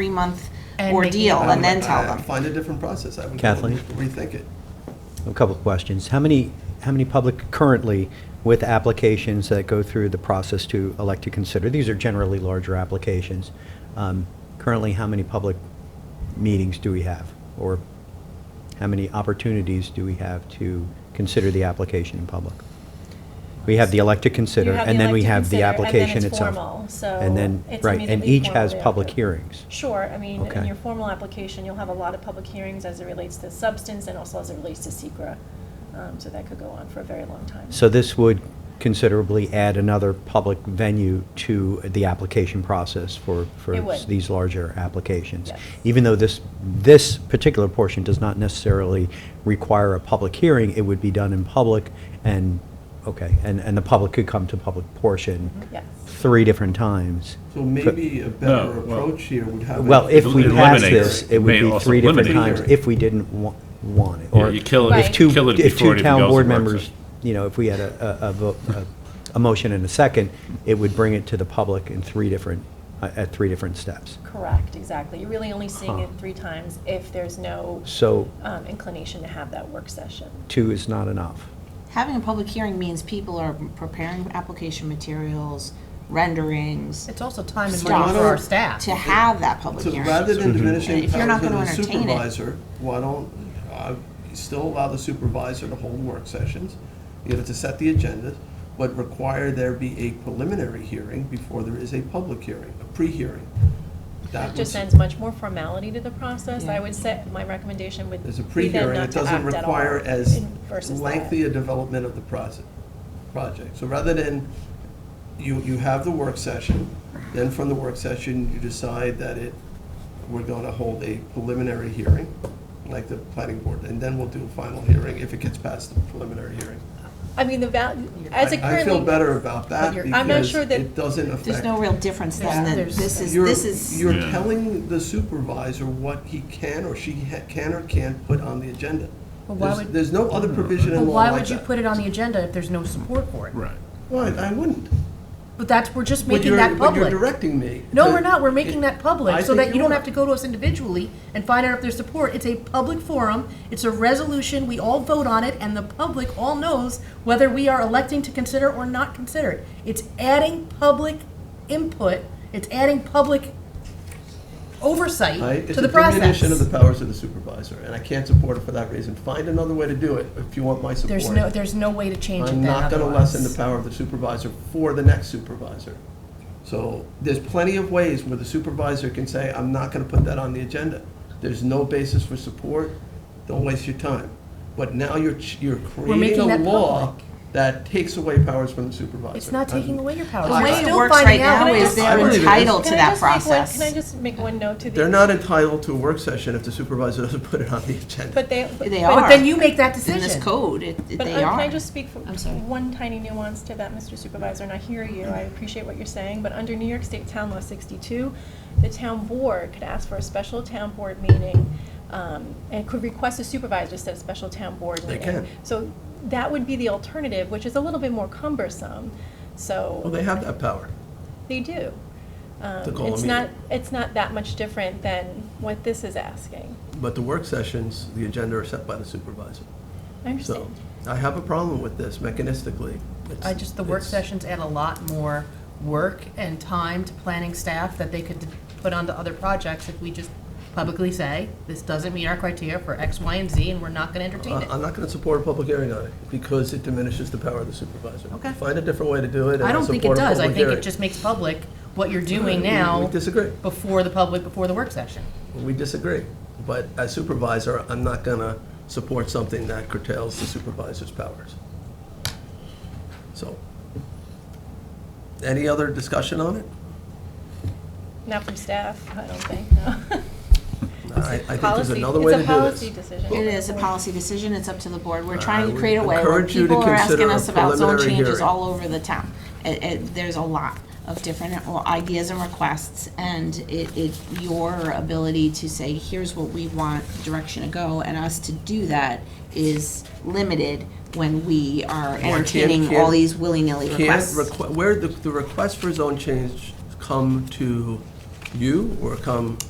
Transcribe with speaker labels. Speaker 1: three-month
Speaker 2: And making it
Speaker 1: ordeal and then tell
Speaker 3: I-
Speaker 1: them.
Speaker 3: Find a different process. I would
Speaker 4: Kathleen?
Speaker 3: Rethink it.
Speaker 4: A couple of questions. How many, how many public currently with applications that go through the process to elect to consider? These are generally larger applications. Um, Currently, how many public meetings do we have? Or how many opportunities do we have to consider the application in public? We have the elect to consider,
Speaker 5: have the
Speaker 4: and then
Speaker 5: elect
Speaker 4: we
Speaker 5: to
Speaker 4: have the
Speaker 5: consider, and then
Speaker 4: application
Speaker 5: it's
Speaker 4: itself.
Speaker 5: formal, so
Speaker 4: And then,
Speaker 5: it's
Speaker 4: right, and
Speaker 5: immediately
Speaker 4: each has
Speaker 5: formally
Speaker 4: public
Speaker 5: approved.
Speaker 4: hearings.
Speaker 5: Sure, I mean, in
Speaker 4: Okay.
Speaker 5: your formal application, you'll have a lot of public hearings as it relates to substance and also as it relates to secra. Um, so that could go on for a very long time.
Speaker 4: So this would considerably add another public venue to the application process for, for
Speaker 5: It would.
Speaker 4: these larger applications.
Speaker 5: Yes.
Speaker 4: Even though this, this particular portion does not necessarily require a public hearing, it would be done in public and, okay, and, and the public could come to public portion
Speaker 5: Yes.
Speaker 4: three different times.
Speaker 3: So maybe a better
Speaker 6: No, well-
Speaker 3: approach here would have.
Speaker 4: Well, if we
Speaker 6: It
Speaker 4: pass
Speaker 6: eliminates-
Speaker 4: this, it would
Speaker 6: may
Speaker 4: be
Speaker 6: also
Speaker 4: three different
Speaker 6: eliminate.
Speaker 4: times if we didn't wa- want it.
Speaker 6: Yeah,
Speaker 4: or
Speaker 6: you kill it-
Speaker 5: Right.
Speaker 4: If two,
Speaker 6: kill it
Speaker 4: if
Speaker 6: before
Speaker 4: two
Speaker 6: it even
Speaker 4: town
Speaker 6: goes to
Speaker 4: board
Speaker 6: work
Speaker 4: members,
Speaker 6: session.
Speaker 4: you know, if we had a, a- a, vo- a- a motion and a second, it would bring it to the public in three different, uh, at three different steps.
Speaker 5: Correct, exactly. You're really only seeing it
Speaker 4: Huh.
Speaker 5: three times if there's no
Speaker 4: So
Speaker 5: um, inclination to have that work session.
Speaker 4: two is not enough.
Speaker 1: Having a public hearing means people are preparing application materials, renderings,
Speaker 2: It's also time and
Speaker 1: Stop.
Speaker 2: money for our staff.
Speaker 1: to have that public
Speaker 3: So
Speaker 1: hearing.
Speaker 3: rather
Speaker 6: Mm-hmm.
Speaker 3: than diminishing
Speaker 1: If you're not
Speaker 3: powers of
Speaker 1: gonna
Speaker 3: the
Speaker 1: entertain it.
Speaker 3: supervisor, why don't, uh, still allow the supervisor to hold work sessions? You know, to set the agenda, but require there be a preliminary hearing before there is a public hearing, a pre-hearing. That
Speaker 5: It just
Speaker 3: would-
Speaker 5: adds much more formality to the process. I
Speaker 1: Yeah.
Speaker 5: would say, my recommendation would be
Speaker 3: There's a
Speaker 5: then
Speaker 3: pre-hearing,
Speaker 5: not
Speaker 3: it
Speaker 5: to
Speaker 3: doesn't
Speaker 5: act at all
Speaker 3: require as
Speaker 5: in- versus that.
Speaker 3: lengthy a development of the process, project. So rather than, you, you have the work session, then from the work session, you decide that it, we're gonna hold a preliminary hearing, like the planning board, and then we'll do a final hearing if it gets past the preliminary hearing.
Speaker 5: I mean, the value, as it
Speaker 3: I- I
Speaker 5: currently.
Speaker 3: feel better about that
Speaker 2: you're-
Speaker 5: I'm not
Speaker 3: because
Speaker 5: sure that-
Speaker 3: it doesn't affect.
Speaker 1: There's no real difference then,
Speaker 2: There's-
Speaker 1: that
Speaker 2: there's-
Speaker 1: this is,
Speaker 3: You're-
Speaker 1: this is,
Speaker 3: You're
Speaker 6: Yeah.
Speaker 3: telling the supervisor what he can or she ha- can or can't put on the agenda.
Speaker 2: But why
Speaker 3: There's-
Speaker 2: would-
Speaker 3: There's no other provision
Speaker 2: But
Speaker 3: in law
Speaker 2: why
Speaker 3: like
Speaker 2: would you
Speaker 3: that.
Speaker 2: put it on the agenda if there's no support for it?
Speaker 6: Right.
Speaker 3: Why, I wouldn't.
Speaker 2: But that's, we're just
Speaker 3: But
Speaker 2: making
Speaker 3: you're-
Speaker 2: that
Speaker 3: But you're
Speaker 2: public.
Speaker 3: directing me.
Speaker 2: No,
Speaker 3: to-
Speaker 2: we're not, we're making that
Speaker 3: I
Speaker 2: public, so
Speaker 3: think
Speaker 2: that you don't
Speaker 3: are.
Speaker 2: have to go to us individually and find out if there's support. It's a public forum, it's a resolution, we all vote on it, and the public all knows whether we are electing to consider or not consider it. It's adding public input, it's adding public
Speaker 3: I-
Speaker 2: oversight
Speaker 3: It's
Speaker 2: to
Speaker 3: a
Speaker 2: the process.
Speaker 3: diminution of the powers of the supervisor, and I can't support it for that reason. Find another way to do it if you want my support.
Speaker 2: There's no, there's no way to change it
Speaker 3: I'm
Speaker 2: then
Speaker 3: not gonna lessen the
Speaker 2: otherwise.
Speaker 3: power of the supervisor for the next supervisor. So there's plenty of ways where the supervisor can say, I'm not gonna put that on the agenda. There's no basis for support, don't waste your time. But now you're, ch- you're creating
Speaker 2: making
Speaker 3: a
Speaker 2: that
Speaker 3: law
Speaker 2: public.
Speaker 3: that takes away powers from the supervisor.
Speaker 2: It's not taking away your power.
Speaker 1: the way it
Speaker 2: Still
Speaker 1: works
Speaker 2: finding
Speaker 1: right
Speaker 2: out
Speaker 1: now
Speaker 2: what it
Speaker 1: is
Speaker 2: is.
Speaker 3: I
Speaker 1: they're
Speaker 3: believe it is.
Speaker 1: entitled to
Speaker 5: Can I
Speaker 1: that
Speaker 5: just make one-
Speaker 1: process.
Speaker 5: Can I just make one note to the?
Speaker 3: They're not entitled to a work session if the supervisor doesn't put it on the agenda.
Speaker 5: But they.
Speaker 1: They
Speaker 5: but-
Speaker 1: are.
Speaker 2: But then you make
Speaker 1: In
Speaker 2: that
Speaker 1: this
Speaker 2: decision. uh,
Speaker 1: code, it- it-
Speaker 5: But
Speaker 1: they
Speaker 5: I-
Speaker 1: are.
Speaker 5: can I just speak for
Speaker 1: I'm sorry.
Speaker 5: one tiny nuance to that, Mr. Supervisor? And I hear you, I appreciate what you're saying, but under New York State Town Law 62, the town board could ask for a special town board meeting, um, and could request a supervisor to set a special town board
Speaker 3: They
Speaker 5: meeting.
Speaker 3: can.
Speaker 5: So that would be the alternative, which is a little bit more cumbersome, so.
Speaker 3: Well, they have that power.
Speaker 5: They do.
Speaker 3: To
Speaker 5: Um,
Speaker 3: call a
Speaker 5: It's
Speaker 3: meeting.
Speaker 5: not, it's not that much different than what this is asking.
Speaker 3: But the work sessions, the agenda are set by the supervisor.
Speaker 5: I
Speaker 3: So
Speaker 5: understand.
Speaker 3: I have a problem with this mechanistically. It's-
Speaker 2: I just, the work
Speaker 3: it's-
Speaker 2: sessions add a lot more work and time to planning staff that they could put onto other projects if we just publicly say, this doesn't meet our criteria for X, Y, and Z, and we're not gonna entertain
Speaker 3: I-
Speaker 2: it.
Speaker 3: Uh, I'm not going to support a public hearing on it because it diminishes the power of the supervisor.
Speaker 2: Okay.
Speaker 3: Find a different way to do it. and
Speaker 2: I don't
Speaker 3: I'll
Speaker 2: think it
Speaker 3: support a
Speaker 2: does, I
Speaker 3: public
Speaker 2: think it
Speaker 3: hearing.
Speaker 2: just makes public what you're doing
Speaker 3: We- We
Speaker 2: now
Speaker 3: disagree.
Speaker 2: before the public, before the work session.
Speaker 3: We disagree. But as supervisor, I'm not going to support something that curtails the supervisor's powers. So, any other discussion on it?
Speaker 5: Not from staff, I don't think, no.
Speaker 3: I I think there's
Speaker 5: Policy-
Speaker 3: another way to do
Speaker 5: It's
Speaker 3: this.
Speaker 5: a policy decision.
Speaker 1: It is a policy decision, it's up to the board. We're trying
Speaker 3: I
Speaker 1: to
Speaker 3: would
Speaker 1: create a way where
Speaker 3: encourage you to
Speaker 1: people are asking
Speaker 3: consider a
Speaker 1: us about zone
Speaker 3: preliminary
Speaker 1: changes
Speaker 3: hearing.
Speaker 1: all over the town. It- it- there's a lot of different uh, ideas and requests, and it, it, your ability to say, here's what we want, direction to go, and us to do that is limited when we are
Speaker 3: can't-
Speaker 1: entertaining
Speaker 3: can't-
Speaker 1: all these willy-nilly
Speaker 3: can't
Speaker 1: requests.
Speaker 3: requ- where the, the request for zone change come to you or come